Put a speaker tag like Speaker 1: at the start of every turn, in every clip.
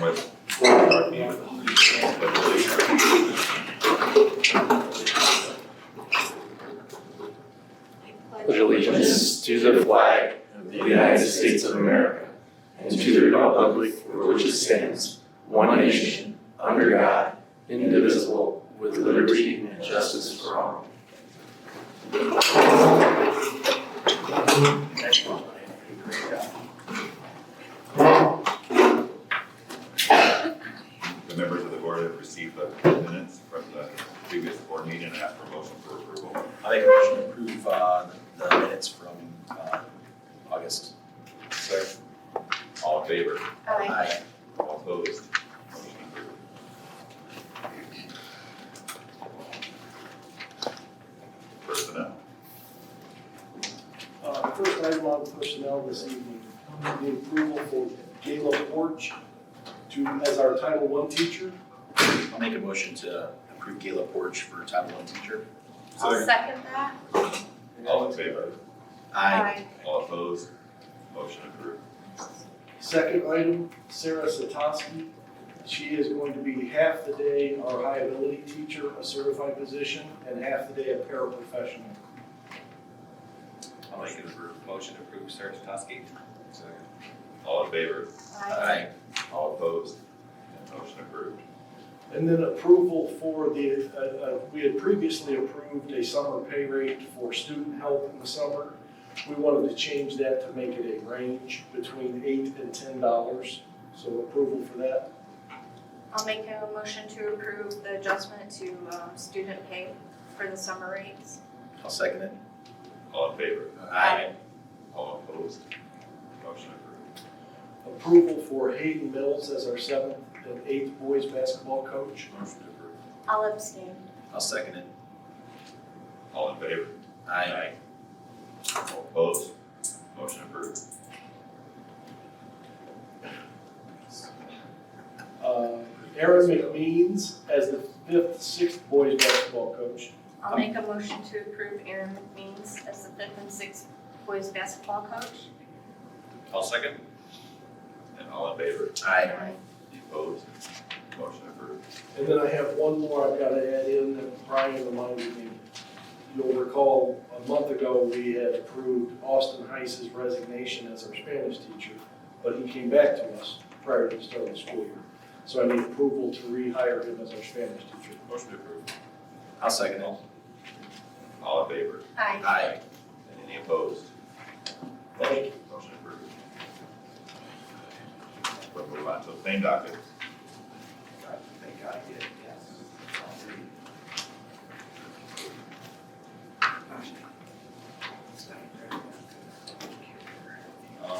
Speaker 1: with, or meeting with the leader.
Speaker 2: pledge allegiance to the flag of the United States of America and to the republic for which it stands, one nation, under God, indivisible, with liberty and justice for all.
Speaker 1: The members of the board have received the minutes from the previous board meeting and ask for motion for approval.
Speaker 3: I make a motion to approve uh, the minutes from uh, August.
Speaker 1: Second. All in favor?
Speaker 3: Aye.
Speaker 1: All opposed? Motion approved. Personnel.
Speaker 4: Uh, the first item on personnel this evening, the approval for Gayla Porch to, as our Title One teacher.
Speaker 3: I'll make a motion to approve Gayla Porch for Title I teacher.
Speaker 5: I'll second that.
Speaker 1: All in favor?
Speaker 3: Aye.
Speaker 1: All opposed? Motion approved.
Speaker 4: Second item, Sarah Satoski. She is going to be half the day our high ability teacher, a certified position, and half the day a paraprofessional.
Speaker 3: I'll make a motion to approve Sarah Stotowski.
Speaker 1: All in favor?
Speaker 3: Aye.
Speaker 1: All opposed? Motion approved.
Speaker 4: And then approval for the, uh, uh, we had previously approved a summer pay rate for student help in the summer. We wanted to change that to make it a range between eight and ten dollars, so approval for that.
Speaker 5: I'll make a motion to approve the adjustment to um, student pay for the summer rates.
Speaker 3: I'll second it.
Speaker 1: All in favor?
Speaker 5: Aye.
Speaker 1: All opposed? Motion approved.
Speaker 4: Approval for Hayden Mills as our seventh and eighth boys basketball coach.
Speaker 3: Motion to approve.
Speaker 5: I'll abstain.
Speaker 3: I'll second it.
Speaker 1: All in favor?
Speaker 3: Aye.
Speaker 1: All opposed? Motion approved.
Speaker 4: Uh, Aaron McMeans as the fifth, sixth boys basketball coach.
Speaker 5: I'll make a motion to approve Aaron McMeans as the fifth and sixth boys basketball coach.
Speaker 3: I'll second.
Speaker 1: And all in favor?
Speaker 3: Aye.
Speaker 1: Opposed? Motion approved.
Speaker 4: And then I have one more I've got to add in that Brian reminded me. You'll recall, a month ago, we had approved Austin Heiss's resignation as our Spanish teacher, but he came back to us prior to the start of the school year. So I need approval to rehire him as our Spanish teacher.
Speaker 1: Motion approved.
Speaker 3: I'll second it.
Speaker 1: All in favor?
Speaker 5: Aye.
Speaker 3: Aye.
Speaker 1: Any opposed? Motion motion approved. We'll move on to the same docket.
Speaker 3: Thank God I did,
Speaker 1: Um,
Speaker 3: yes. Um,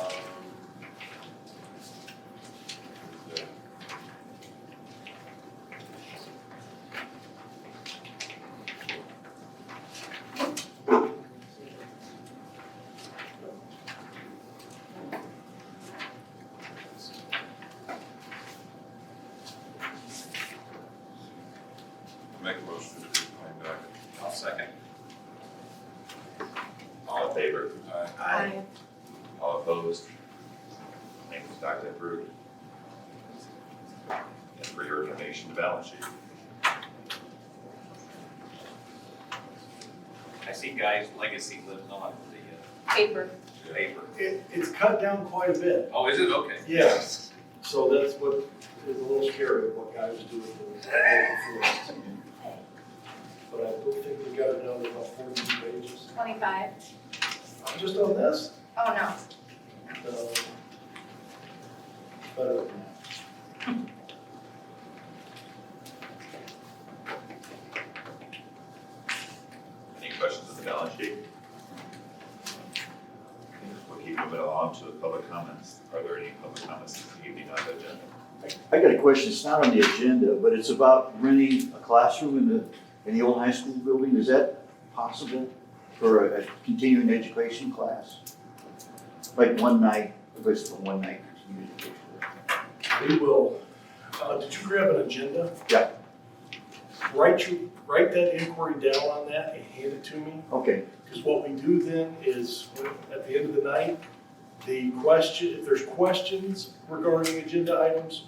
Speaker 1: Make a motion to approve the docket.
Speaker 3: I'll second.
Speaker 1: All in favor?
Speaker 3: Aye.
Speaker 1: All opposed? Name is docket approved. And for your information, the balance sheet.
Speaker 6: I see Guy's legacy lives on the
Speaker 5: Paper.
Speaker 6: uh, paper.
Speaker 4: It, it's cut down quite a bit.
Speaker 6: Oh, is it? Okay.
Speaker 4: Yeah. So that's what is a little scary, what Guy was doing. to us. But I don't think we got it down to about fourteen pages.
Speaker 5: Twenty-five.
Speaker 4: Just on this?
Speaker 5: Oh, no.
Speaker 4: So, better than
Speaker 1: Any questions on the balance sheet? We'll keep moving along to the public comments. Are there any public comments this evening on the agenda?
Speaker 7: I got a question, it's not on the agenda, but it's about renting a classroom in the, in the old high school building, is that possible for a a continuing education class? Like one night, if it's for one night continuing education.
Speaker 4: that. We will, uh, did you grab an agenda?
Speaker 7: Yeah.
Speaker 4: Write you, write that inquiry down on that and hand it to me,
Speaker 7: Okay,
Speaker 4: because what we do then is, when- at the end of the night, the question, if there's questions regarding agenda items